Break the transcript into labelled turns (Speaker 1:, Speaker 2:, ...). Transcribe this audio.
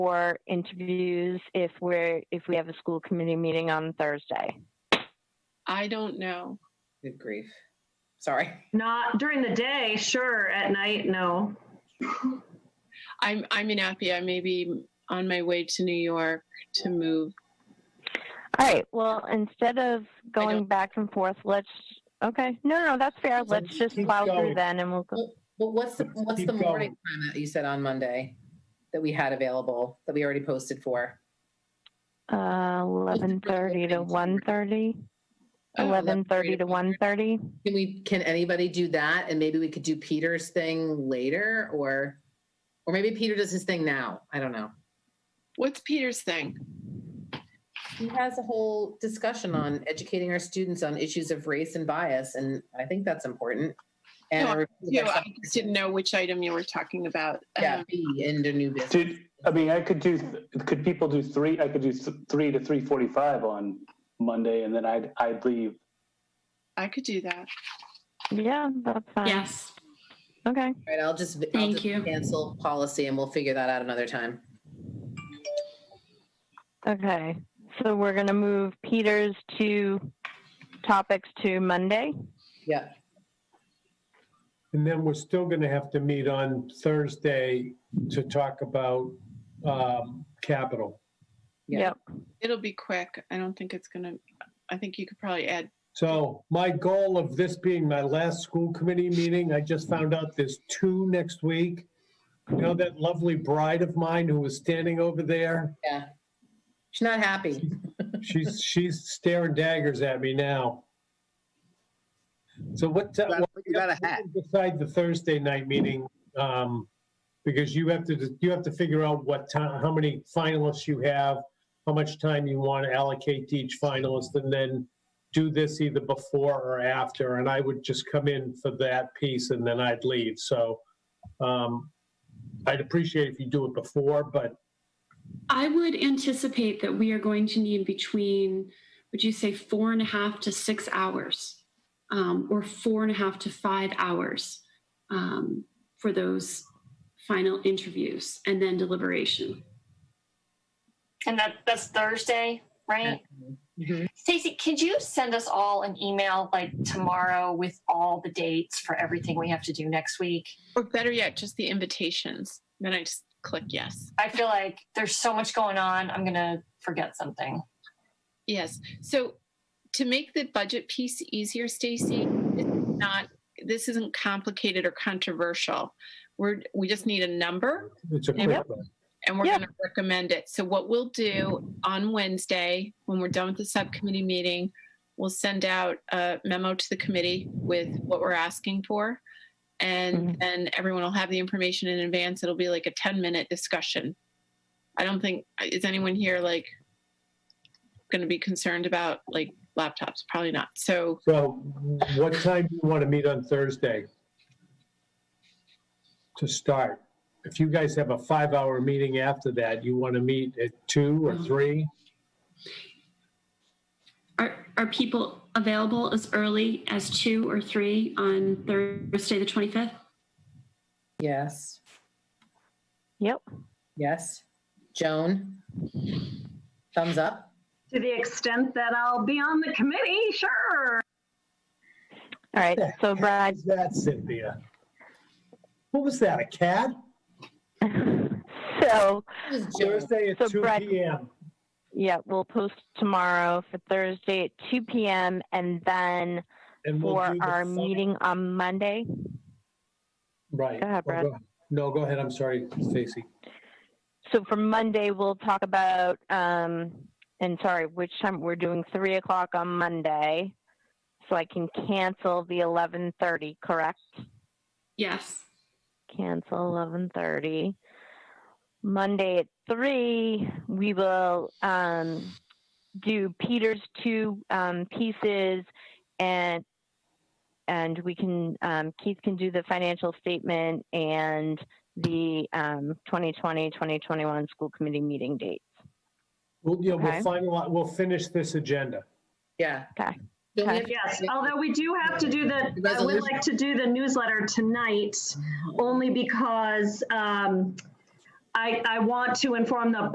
Speaker 1: for interviews if we're if we have a school committee meeting on Thursday?
Speaker 2: I don't know.
Speaker 3: Good grief. Sorry.
Speaker 4: Not during the day, sure. At night, no.
Speaker 2: I'm I'm in Appia. I may be on my way to New York to move.
Speaker 1: All right. Well, instead of going
Speaker 2: don't-
Speaker 1: back and forth, let's. Okay. No, no, that's fair.
Speaker 3: So
Speaker 1: Let's just
Speaker 5: keep
Speaker 1: plow through
Speaker 5: going.
Speaker 1: then, and we'll go.
Speaker 3: But what's the, what's the
Speaker 5: Keep
Speaker 3: morning
Speaker 5: going.
Speaker 3: time that you said on Monday that we had available, that we already posted for?
Speaker 1: Uh, eleven thirty to one thirty.
Speaker 3: Uh,
Speaker 2: Oh,
Speaker 1: Eleven thirty to one thirty.
Speaker 3: Can we, can anybody do that? And maybe we could do Peter's thing later or, or maybe Peter does his thing now. I don't know.
Speaker 2: What's Peter's thing?
Speaker 3: He has a whole discussion on educating our students on issues of race and bias, and I think that's important. And
Speaker 2: No,
Speaker 3: I
Speaker 2: You know, I just didn't know which item you were talking about.
Speaker 3: yeah,
Speaker 2: Um,
Speaker 3: be in the new business.
Speaker 5: Did, I mean, I could do, could people do three, I could do th- three to three forty-five on Monday and then I'd, I'd leave.
Speaker 2: I could do that.
Speaker 1: Yeah, that's fine.
Speaker 6: Yes.
Speaker 1: Okay.
Speaker 3: All right, I'll just I'll
Speaker 6: Thank
Speaker 3: just
Speaker 6: you.
Speaker 3: Cancel policy, and we'll figure that out another time.
Speaker 1: Okay. So we're gonna move Peter's two topics to Monday.
Speaker 3: Yeah,
Speaker 7: And then we're still going to have to meet on Thursday to talk about um, capital.
Speaker 3: Yeah.
Speaker 1: Yep.
Speaker 2: It'll be quick. I don't think it's gonna. I think you could probably add.
Speaker 7: So my goal of this being my last school committee meeting, I just found out there's two next week. You know that lovely bride of mine who was standing over there?
Speaker 3: yeah. She's not happy.
Speaker 7: She's, she's staring daggers at me now. So what? ti-
Speaker 3: Well, you got a hat.
Speaker 7: Decide the Thursday night meeting, um, because you have to, you have to figure out what time, how many finalists you have, how much time you want to allocate to each finalist, and then do this either before or after, and I would just come in for that piece and then I'd leave, so, um, I'd appreciate if you do it before, but
Speaker 6: I would anticipate that we are going to need between, would you say, four and a half to six hours, um, or four and a half to five hours um, for those final interviews and then deliberation.
Speaker 8: And that that's Thursday, right?
Speaker 1: Mm-hmm.
Speaker 3: Mhm.
Speaker 8: Stacey, could you send us all an email like tomorrow with all the dates for everything we have to do next week?
Speaker 2: Or better yet, just the invitations. Then I just click yes.
Speaker 8: I feel like there's so much going on. I'm gonna forget something.
Speaker 2: Yes. So to make the budget piece easier, Stacy, it's not this isn't complicated or controversial. We're we just need a number
Speaker 7: it's a quick
Speaker 2: Yep.
Speaker 7: one.
Speaker 2: and we're
Speaker 1: Yeah.
Speaker 2: going to recommend it. So what we'll do on Wednesday, when we're done with the subcommittee meeting, we'll send out a memo to the committee with what we're asking for. And then everyone will have the information in advance. It'll be like a 10 minute discussion. I don't think, is anyone here like going to be concerned about like laptops? Probably not. So
Speaker 7: So what time do you want to meet on Thursday? To start, if you guys have a five-hour meeting after that, you want to meet at two
Speaker 1: Mm-hmm.
Speaker 7: or three?
Speaker 6: Are, are people available as early as two or three on Thursday, the 25th?
Speaker 3: Yes,
Speaker 1: Yep.
Speaker 3: yes. Joan, thumbs up.
Speaker 4: To the extent that I'll be on the committee, sure.
Speaker 1: All right. So Brad,
Speaker 7: How's that, Cynthia? What was that, a cat?
Speaker 1: so
Speaker 3: It was Joan.
Speaker 7: Thursday at
Speaker 1: So,
Speaker 7: two
Speaker 1: Brett-
Speaker 7: PM.
Speaker 1: yeah, we'll post tomorrow for Thursday at two p.m. and then
Speaker 7: and we'll
Speaker 1: for
Speaker 7: do the
Speaker 1: our
Speaker 7: fun-
Speaker 1: meeting on Monday.
Speaker 7: Right.
Speaker 1: Go ahead,
Speaker 7: Oh,
Speaker 1: Brett.
Speaker 7: No, go ahead, I'm sorry, Stacy.
Speaker 1: So for Monday, we'll talk about, um, and sorry, which time, we're doing three o'clock on Monday. So I can cancel the eleven thirty, correct?
Speaker 6: Yes.
Speaker 1: Cancel eleven thirty. Monday at three, we will, um, do Peter's two, um, pieces and, and we can, um, Keith can do the financial statement and the, um, 2020, 2021 school committee meeting dates.
Speaker 7: We'll, yeah, we'll
Speaker 1: Okay.
Speaker 7: finalize, we'll finish this agenda.
Speaker 3: Yeah.
Speaker 1: Okay.
Speaker 3: Don't we have to-
Speaker 4: Yes, although we do have to do the, I would
Speaker 3: Resolution.
Speaker 4: like to do the newsletter tonight, only because um, I, I want to inform the